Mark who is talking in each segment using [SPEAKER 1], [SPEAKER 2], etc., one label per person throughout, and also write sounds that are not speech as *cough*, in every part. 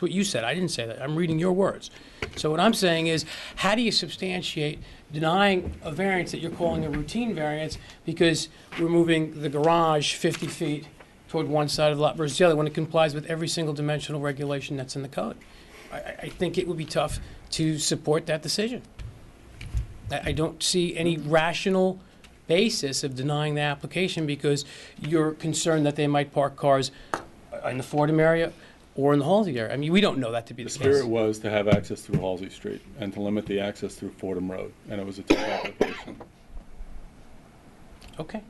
[SPEAKER 1] It's what you said. I didn't say that. I'm reading your words. So what I'm saying is, how do you substantiate denying a variance that you're calling a routine variance because we're moving the garage 50 feet toward one side of the lot versus the other when it complies with every single dimensional regulation that's in the code? I- I, I think it would be tough to support that decision. I, I don't see any rational basis of denying the application because you're concerned that they might park cars uh, in the Fordham area or in the Halsey area. I mean, we don't know that to be
[SPEAKER 2] The
[SPEAKER 1] the
[SPEAKER 2] spirit
[SPEAKER 1] case.
[SPEAKER 2] was to have access through Halsey Street and to limit the access through Fordham Road, and it was a tough
[SPEAKER 3] *coughs*
[SPEAKER 2] application.
[SPEAKER 1] Okay,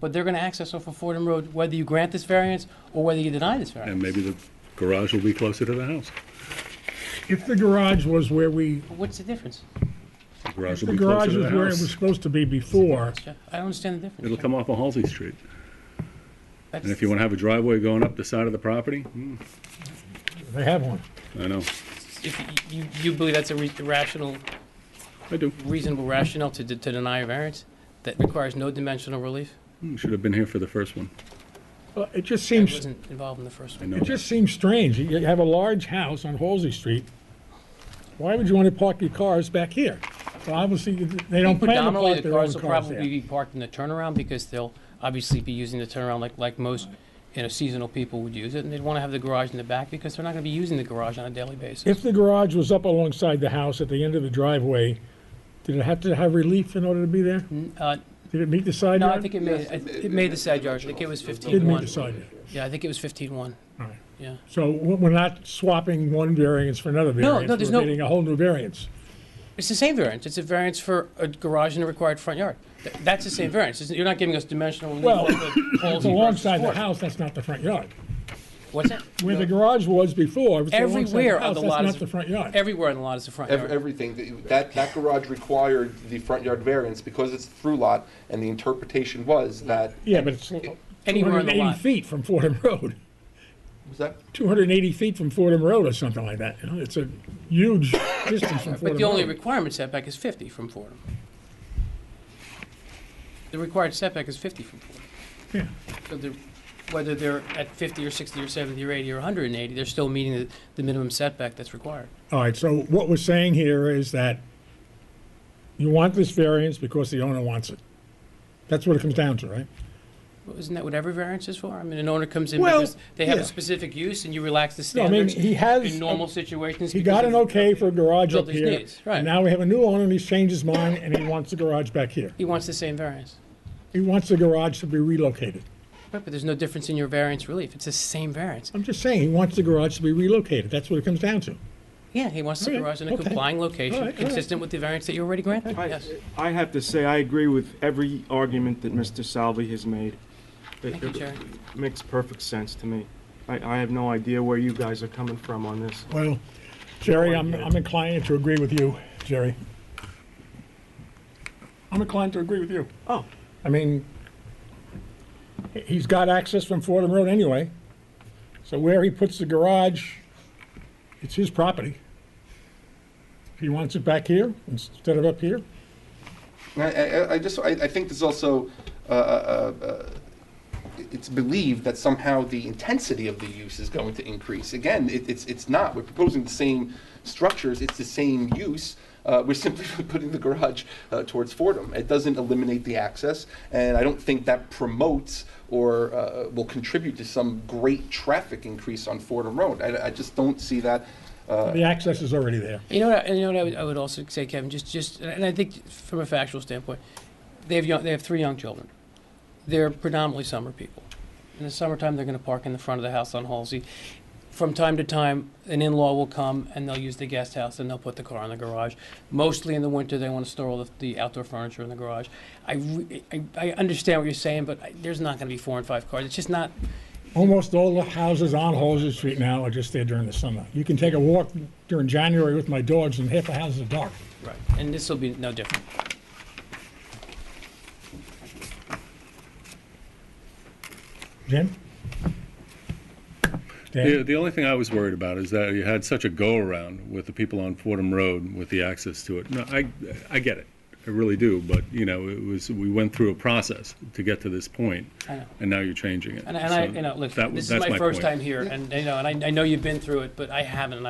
[SPEAKER 1] but they're gonna access off of Fordham Road whether you grant this variance or whether you deny this variance.
[SPEAKER 2] And maybe the garage will be closer to the house.
[SPEAKER 3] If the garage was where we,
[SPEAKER 1] But What's the difference?
[SPEAKER 2] The garage
[SPEAKER 3] if
[SPEAKER 2] will
[SPEAKER 3] the
[SPEAKER 2] be
[SPEAKER 3] garage
[SPEAKER 2] closer
[SPEAKER 3] was
[SPEAKER 2] to the
[SPEAKER 3] where it was
[SPEAKER 2] house.
[SPEAKER 3] supposed to be before,
[SPEAKER 1] Jeff? I don't understand the difference.
[SPEAKER 2] It'll come off of Halsey Street.
[SPEAKER 1] That's-
[SPEAKER 2] And if you want to have a driveway going up the side of the property, hmm,
[SPEAKER 3] they have one.
[SPEAKER 2] I know,
[SPEAKER 1] If you- you, you believe that's a re- rational,
[SPEAKER 2] I do.
[SPEAKER 1] reasonable rationale to, de- to deny a variance that requires no dimensional relief?
[SPEAKER 2] Hmm, Should have been here for the first one.
[SPEAKER 3] Well, uh, It just
[SPEAKER 1] I
[SPEAKER 3] seems,
[SPEAKER 1] wasn't involved in the first
[SPEAKER 2] I
[SPEAKER 1] one.
[SPEAKER 2] know
[SPEAKER 3] it
[SPEAKER 2] that.
[SPEAKER 3] just seems strange. You have a large house on Halsey Street. Why would you want to park your cars back here? Well, obviously, they don't plan to
[SPEAKER 1] Predominantly, the
[SPEAKER 3] park their own
[SPEAKER 1] cars will
[SPEAKER 3] cars
[SPEAKER 1] probably
[SPEAKER 3] there.
[SPEAKER 1] be parked in the turnaround because they'll obviously be using the turnaround like, like most, you know, seasonal people would use it. And they'd want to have the garage in the back because they're not going to be using the garage on a daily basis.
[SPEAKER 3] If the garage was up alongside the house at the end of the driveway, did it have to have relief in order to be there?
[SPEAKER 1] Uh,
[SPEAKER 3] Did it meet the side
[SPEAKER 1] No,
[SPEAKER 3] yard?
[SPEAKER 1] I think it made, it it made the side yard. I think it was
[SPEAKER 3] Did meet
[SPEAKER 1] 15-1.
[SPEAKER 3] the side yard.
[SPEAKER 1] Yeah, I think it was 15-1.
[SPEAKER 3] All right.
[SPEAKER 1] Yeah.
[SPEAKER 3] So we- we're not swapping one variance for another
[SPEAKER 1] No,
[SPEAKER 3] variance.
[SPEAKER 1] no, there's no-
[SPEAKER 3] We're getting a whole new variance.
[SPEAKER 1] It's the same variance. It's a variance for a garage and a required front yard. Th- That's the same variance. Isn't- You're not giving us dimensional relief.
[SPEAKER 3] Well, *coughs*
[SPEAKER 1] like the poles
[SPEAKER 3] It's
[SPEAKER 1] versus
[SPEAKER 3] alongside the
[SPEAKER 1] fours.
[SPEAKER 3] house, that's not the front yard.
[SPEAKER 1] What's that?
[SPEAKER 3] Where the garage was before, it's alongside
[SPEAKER 1] Everywhere
[SPEAKER 3] the
[SPEAKER 1] on
[SPEAKER 3] house,
[SPEAKER 1] the
[SPEAKER 3] that's
[SPEAKER 1] lot is.
[SPEAKER 3] not the front yard.
[SPEAKER 1] Everywhere on the lot is the front
[SPEAKER 4] Ev-
[SPEAKER 1] yard.
[SPEAKER 4] Everything, that- that, that garage required the front yard variance because it's through lot, and the interpretation was that,
[SPEAKER 3] Yeah, but it's
[SPEAKER 1] Anywhere on the
[SPEAKER 3] 280
[SPEAKER 1] lot.
[SPEAKER 3] feet from Fordham Road, *laughs*
[SPEAKER 4] was that?
[SPEAKER 3] 280 feet from Fordham Road or something like that, you know, it's a huge *coughs* distance from
[SPEAKER 1] But
[SPEAKER 3] Fordham
[SPEAKER 1] the only
[SPEAKER 3] Road.
[SPEAKER 1] requirement setback is 50 from Fordham. The required setback is 50 from Fordham.
[SPEAKER 3] Yeah.
[SPEAKER 1] So they're- Whether they're at 50 or 60 or 70 or 80 or 180, they're still meeting the- the minimum setback that's required.
[SPEAKER 3] All right, so what we're saying here is that you want this variance because the owner wants it. That's what it comes down to, right?
[SPEAKER 1] Well, Isn't that what every variance is for? I mean, an owner comes in
[SPEAKER 3] Well,
[SPEAKER 1] because they have a
[SPEAKER 3] yeah.
[SPEAKER 1] specific use and you relax the
[SPEAKER 3] No, I mean,
[SPEAKER 1] standards
[SPEAKER 3] he has.
[SPEAKER 1] in normal situations.
[SPEAKER 3] He
[SPEAKER 1] because
[SPEAKER 3] got
[SPEAKER 1] of-
[SPEAKER 3] an okay for a garage up
[SPEAKER 1] Builder's
[SPEAKER 3] here.
[SPEAKER 1] needs, right.
[SPEAKER 3] and Now we have a new owner, and he's changed his mind, and he wants the garage back here.
[SPEAKER 1] He wants the same variance.
[SPEAKER 3] He wants the garage to be relocated.
[SPEAKER 1] Right, but there's no difference in your variance relief. It's the same variance.
[SPEAKER 3] I'm just saying, he wants the garage to be relocated. That's what it comes down to.
[SPEAKER 1] Yeah, he wants the
[SPEAKER 3] All right,
[SPEAKER 1] garage in a
[SPEAKER 3] okay.
[SPEAKER 1] complying
[SPEAKER 3] All
[SPEAKER 1] location
[SPEAKER 3] right, all right.
[SPEAKER 1] consistent with the variance that you already granted.
[SPEAKER 5] I,
[SPEAKER 1] Yes.
[SPEAKER 5] I have to say, I agree with every argument that Mr. Salvi has made. It-
[SPEAKER 1] Thank you, Jerry.
[SPEAKER 5] It makes perfect sense to me. I, I have no idea where you guys are coming from on this.
[SPEAKER 3] Well, Jerry, I'm, I'm inclined to agree with you, Jerry. I'm inclined to agree with you.
[SPEAKER 5] Oh,
[SPEAKER 3] I mean, he- he's got access from Fordham Road anyway, so where he puts the garage, it's his property. If he wants it back here instead of up here,
[SPEAKER 4] I, I, I just, I, I think there's also, uh, uh, uh, it's believed that somehow the intensity of the use is going to increase. Again, it, it's, it's not, we're proposing the same structures, it's the same use, uh, we're simply *laughs* putting the garage, uh, towards Fordham. It doesn't eliminate the access, and I don't think that promotes or, uh, will contribute to some great traffic increase on Fordham Road. I, I just don't see that, uh,
[SPEAKER 3] the access is already there.
[SPEAKER 1] You know what, I- you know what I would, I would also say, Kevin, just, just, and I think from a factual standpoint, they have young, they have three young children. They're predominantly summer people. In the summertime, they're gonna park in the front of the house on Halsey. From time to time, an in-law will come and they'll use the guest house and they'll put the car in the garage. Mostly in the winter, they wanna store all the, the outdoor furniture in the garage. I, re- I, I understand what you're saying, but I- there's not gonna be four and five cars. It's just not,
[SPEAKER 3] Almost all the houses on Halsey Street now are just there during the summer. You can take a walk during January with my dogs and half the houses are dark.
[SPEAKER 1] Right. and this'll be no different.
[SPEAKER 3] Jim? Dan?
[SPEAKER 2] The, the only thing I was worried about is that you had such a go-around with the people on Fordham Road with the access to it. No, I, I get it. I really do, but, you know, it was, we went through a process to get to this point,
[SPEAKER 1] I know.
[SPEAKER 2] and now you're changing it.
[SPEAKER 1] And, and I,
[SPEAKER 2] So
[SPEAKER 1] you know, look,
[SPEAKER 2] that was-
[SPEAKER 1] this is
[SPEAKER 2] that's
[SPEAKER 1] my first
[SPEAKER 2] point.
[SPEAKER 1] time here, and, you know, and I, I know you've been through it, but I haven't, and